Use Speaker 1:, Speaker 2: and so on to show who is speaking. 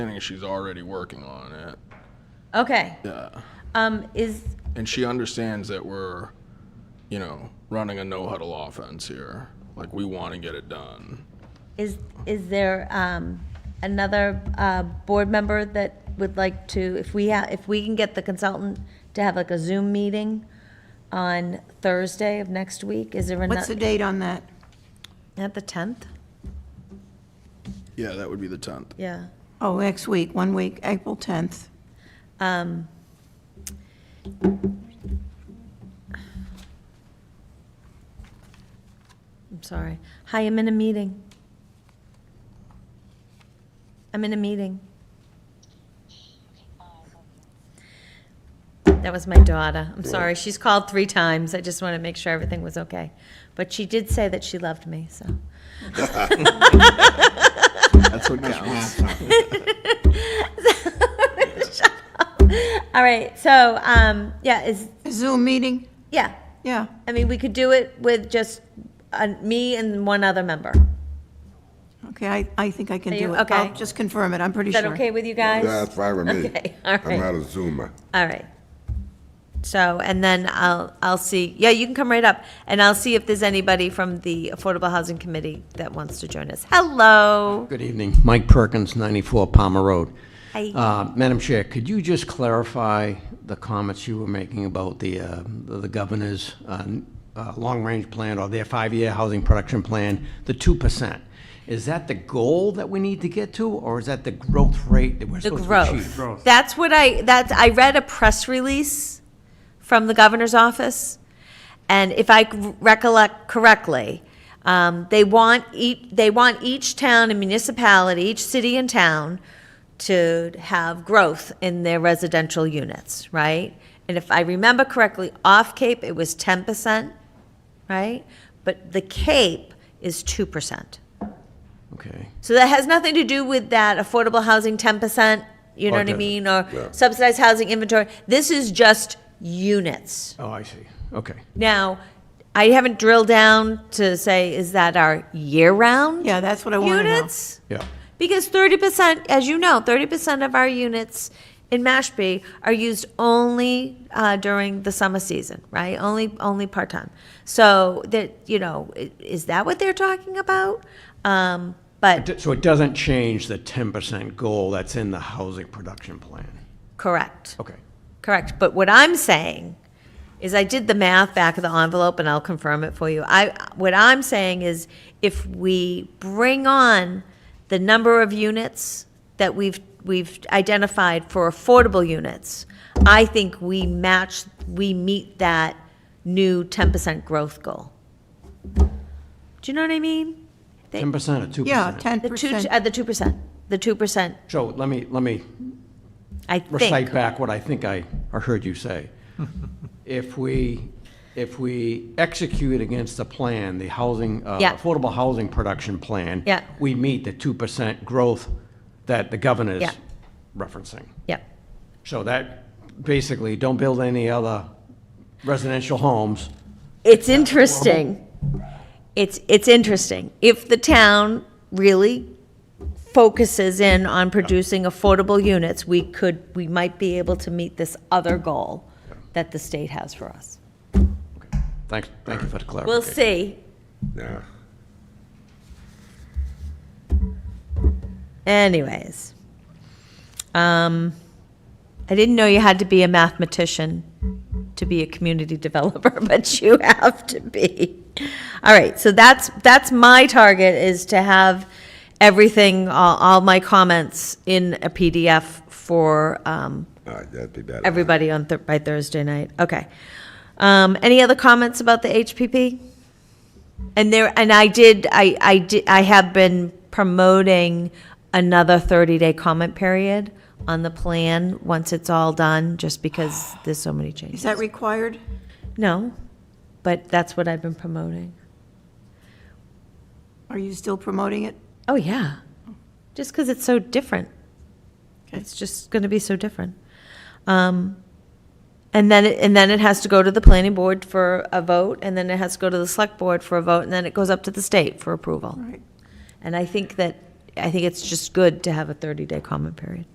Speaker 1: understanding she's already working on it.
Speaker 2: Okay.
Speaker 1: Yeah.
Speaker 2: Um, is,
Speaker 1: And she understands that we're, you know, running a no huddle offense here. Like, we want to get it done.
Speaker 2: is, is there, um, another, uh, board member that would like to, if we ha, if we can get the consultant to have like a Zoom meeting on Thursday of next week, is there
Speaker 3: What's the
Speaker 2: another,
Speaker 3: date on that?
Speaker 2: at the tenth?
Speaker 1: Yeah, that would be the 10th.
Speaker 2: Yeah.
Speaker 3: Oh, next week, one week, April 10th.
Speaker 2: Um, I'm sorry. Hi, I'm in a meeting. I'm in a meeting. That was my daughter. I'm sorry. She's called three times. I just want to make sure everything was okay. But she did say that she loved me, so.
Speaker 1: That's what counts.
Speaker 2: All right, so, um, yeah, is,
Speaker 3: Zoom meeting?
Speaker 2: yeah.
Speaker 3: Yeah.
Speaker 2: I mean, we could do it with just uh, me and one other member.
Speaker 3: Okay, I, I think I can
Speaker 2: Are
Speaker 3: do
Speaker 2: you-
Speaker 3: it.
Speaker 2: okay.
Speaker 3: I'll just confirm it, I'm pretty
Speaker 2: Is
Speaker 3: sure.
Speaker 2: that okay with you guys?
Speaker 4: Yeah, that's fine with me.
Speaker 2: Okay, all right.
Speaker 4: I'm not a Zoomer.
Speaker 2: All right. So, and then I'll, I'll see, yeah, you can come right up, and I'll see if there's anybody from the Affordable Housing Committee that wants to join us. Hello.
Speaker 5: Good evening. Mike Perkins, 94 Palmer Road.
Speaker 2: Hi.
Speaker 5: Uh, Madam Chair, could you just clarify the comments you were making about the, uh, the governor's uh, uh, long-range plan or their five-year housing production plan, the 2%? Is that the goal that we need to get to, or is that the growth rate that we're
Speaker 2: The
Speaker 5: supposed to achieve?
Speaker 2: growth. That's what I, that's, I read a press release from the governor's office, and if I recollect correctly, um, they want each, they want each town and municipality, each city and town to have growth in their residential units, right? And if I remember correctly, off Cape, it was ten percent, right? But the Cape is two percent.
Speaker 5: Okay.
Speaker 2: So that has nothing to do with that affordable housing ten percent, you know what I
Speaker 5: Okay.
Speaker 2: mean, or
Speaker 4: Yeah.
Speaker 2: subsidized housing inventory. This is just units.
Speaker 5: Oh, I see. Okay.
Speaker 2: Now, I haven't drilled down to say, is that our year-round
Speaker 3: Yeah, that's what I want to know.
Speaker 2: units?
Speaker 5: Yeah.
Speaker 2: Because thirty percent, as you know, thirty percent of our units in Mashpee are used only uh, during the summer season, right? Only, only part time. So that you know, i- is that what they're talking about? Um, but
Speaker 5: D- So it doesn't change the 10% goal that's in the housing production plan?
Speaker 2: correct.
Speaker 5: Okay.
Speaker 2: Correct. But what I'm saying is I did the math back of the envelope and I'll confirm it for you. I, what I'm saying is if we bring on the number of units that we've, we've identified for affordable units, I think we match, we meet that new 10% growth goal. Do you know what I mean?
Speaker 5: 10% or 2%?
Speaker 3: Yeah,
Speaker 2: The two,
Speaker 3: 10%.
Speaker 2: uh, the 2%, the 2%,
Speaker 5: So let me, let me
Speaker 2: I think.
Speaker 5: recite back what I think I I heard you say. If we, if we execute against the plan, the housing, uh,
Speaker 2: Yeah.
Speaker 5: affordable housing production plan,
Speaker 2: Yeah.
Speaker 5: we meet the 2% growth that the governor's
Speaker 2: Yeah.
Speaker 5: referencing.
Speaker 2: Yep.
Speaker 5: So that, basically, don't build any other residential homes.
Speaker 2: It's interesting. It's, it's interesting. If the town really focuses in on producing affordable units, we could, we might be able to meet this other goal that the state has for us.
Speaker 5: Thanks, thank you for the clarification.
Speaker 2: We'll see.
Speaker 4: Yeah.
Speaker 2: Anyways. Um, I didn't know you had to be a mathematician to be a community developer, but you have to be. All right, so that's, that's my target is to have everything, all, all my comments in a PDF for, um,
Speaker 4: All right, that'd be better.
Speaker 2: everybody on, Thur- by Thursday night. Okay. Um, any other comments about the HPP? And there, and I did, I, I did, I have been promoting another 30-day comment period on the plan, once it's all done, just because there's so many
Speaker 3: Is
Speaker 2: changes.
Speaker 3: that required?
Speaker 2: No, but that's what I've been promoting.
Speaker 3: Are you still promoting it?
Speaker 2: Oh, yeah. Just because it's so different.
Speaker 3: Okay.
Speaker 2: It's just going to be so different. Um, and then, it- and then it has to go to the planning board for a vote, and then it has to go to the select board for a vote, and then it goes up to the state for approval.
Speaker 3: Right.
Speaker 2: And I think that I think it's just good to have a 30-day comment period.